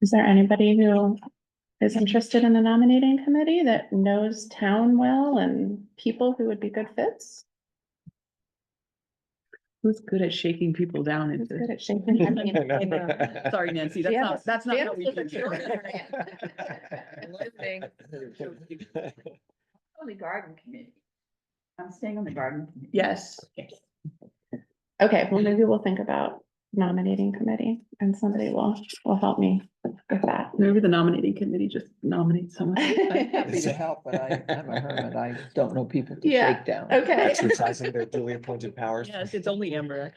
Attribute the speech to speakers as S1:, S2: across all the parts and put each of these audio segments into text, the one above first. S1: Is there anybody who is interested in the nominating committee that knows town well and people who would be good fits?
S2: Who's good at shaking people down
S1: Who's good
S2: into?
S1: at shaking hands?
S2: Sorry, Nancy, that's not, that's not what we do here.
S3: On the garden committee. I'm staying on the garden. committee.
S2: Yes,
S1: Okay, well, maybe we'll think about nominating committee and somebody will, will help me with that.
S2: maybe the nominating committee just nominates someone.
S4: I'm happy to help, but I, I'm a hermit. I don't know people to
S1: Yeah.
S4: shake down.
S1: Okay.
S5: Exercising their duly appointed powers.
S2: Yes, it's only Amber.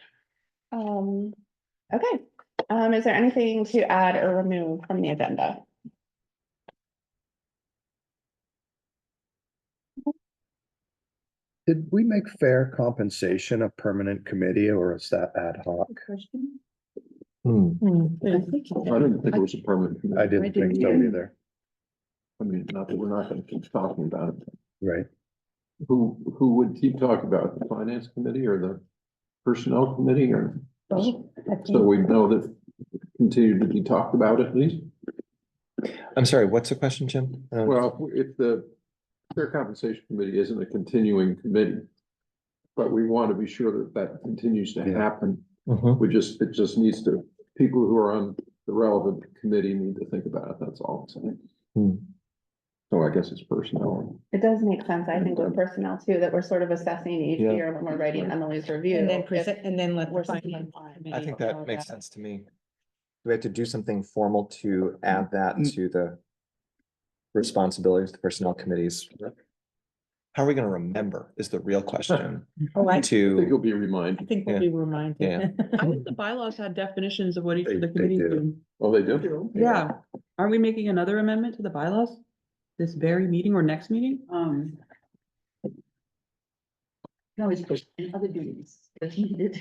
S1: Um, okay, um, is there anything to add or remove from the agenda?
S6: Did we make fair compensation a permanent committee or is that ad hoc?
S3: Question?
S5: Hmm,
S2: I think you
S7: I didn't think it was a permanent.
S6: I didn't think so
S2: didn't.
S6: either,
S7: I mean, not that we're not gonna keep talking about it.
S6: right?
S7: Who, who would keep talking about it? The finance committee or the personnel committee or? So we know that continue to be talked about at least.
S5: I'm sorry, what's the question, Jim? Uh,
S7: Well, if the fair compensation committee isn't a continuing committee. But we want to be sure that that continues to
S6: Yeah.
S7: happen.
S5: mhm.
S7: We just, it just needs to, people who are on the relevant committee need to think about it. That's all. I'm saying.
S5: Hmm.
S7: So I guess it's personnel.
S1: It does make sense, I think, with personnel too, that we're sort of assessing each
S5: Yeah.
S1: year when we're writing Emily's review.
S4: And then
S1: if
S4: present, and then let. the
S1: we're
S4: finance
S1: something-
S4: committee
S5: I think
S4: know
S5: that makes
S4: about
S5: sense to me. Do we have to do something formal to add that to the responsibilities of the personnel committees? How are we gonna remember is the real question
S4: it. Oh, I,
S7: I think
S5: to,
S7: you'll be
S4: I
S7: reminded.
S4: think we'll
S5: Yeah.
S4: be reminded.
S2: I think the bylaws had definitions of what each
S6: They-
S2: of the
S6: they
S2: committees
S6: do.
S2: do.
S7: Oh, they do?
S2: Yeah, aren't we making another amendment to the bylaws? This very meeting or next meeting?
S3: Um. No, it's just other duties that's needed.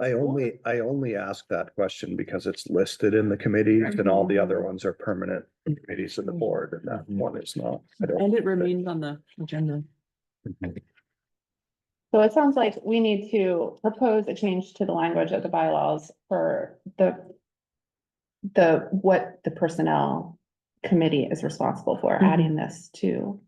S6: I only, I only ask that question because it's listed in the committees and all the other ones are permanent committees of the board and that one is not. I don't-
S2: Mm-hmm. And it remains on the agenda.
S1: So it sounds like we need to propose a change to the language of the bylaws for the. The, what the personnel committee is responsible for,
S2: Mhm.
S1: adding this to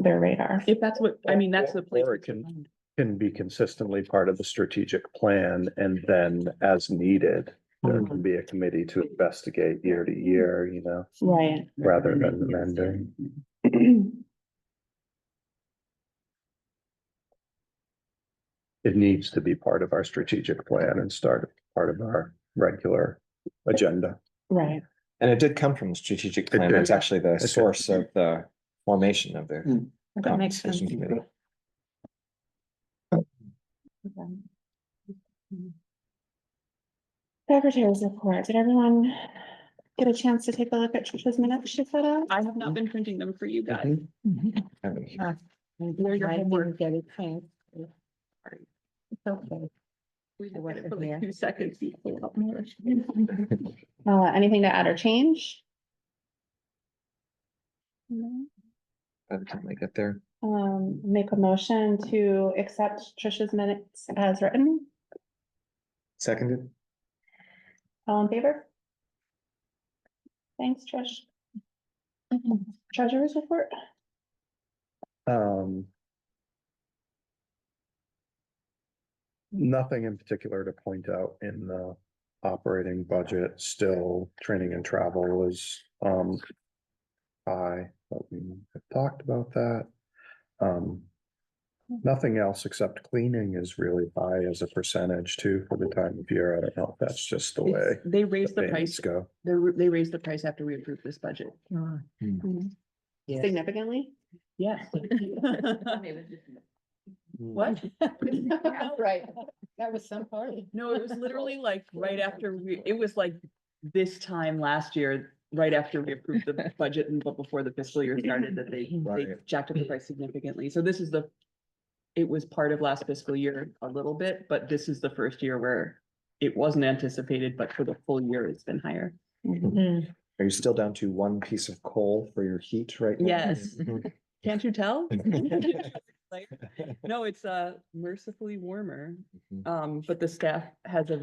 S1: their radar.
S2: If that's what, I mean, that's the place.
S6: Or
S2: we
S6: it can-
S2: find.
S6: Can be consistently part of the strategic plan and then as needed,
S2: Mm-hmm.
S6: there can be a committee to investigate year to year, you know,
S1: Right.
S6: rather than amending. It needs to be part of our strategic plan and start part of our regular agenda.
S1: Right,
S5: and it did come from the strategic
S6: It
S5: plan. That's
S6: did.
S5: actually the
S6: did.
S5: source of the formation of the
S4: That makes sense.
S5: compensation committee.
S1: secretary's report, did everyone get a chance to take a look at Trish's minutes she put up?
S2: I have not been printing them for you guys.
S6: Mm-hmm.
S5: I mean,
S4: Uh,
S2: They're your
S4: I didn't
S2: homework.
S4: get it, thanks. It's okay.
S2: We
S4: I wasn't
S2: did it for like
S4: there.
S2: two seconds.
S1: Uh, anything to add or change? No.
S5: By the time I get there,
S1: Um, make a motion to accept Trish's minutes as written.
S5: seconded,
S1: All in favor? Thanks, Trish. Treasurer's report?
S6: Um. Nothing in particular to point out in the operating budget, still training and travel is, um. High, but we have talked about that. Um. Nothing else except cleaning is really high as a percentage too for the time of year. I don't know. if That's just the way.
S2: They raised the
S6: payments
S2: price.
S6: Go.
S2: They, ra- they raised the price after we approved this budget.
S4: Yes.
S1: Significantly?
S2: Yes. What?
S4: Right, that was some party.
S2: No, it was literally like right after we, it was like this time last year, right after we approved the budget and but before the fiscal year started that they, they
S5: Right.
S2: jacked up the price significantly. So this is the, it was part of last fiscal year a little bit, but this is the first year where it wasn't anticipated, but for the full year, it's been higher.
S1: Mm-hmm.
S5: are you still down to one piece of coal for your heat right? now?
S2: Yes.
S5: Mhm.
S2: Can't you tell? No, it's uh mercifully warmer, um, but the staff has a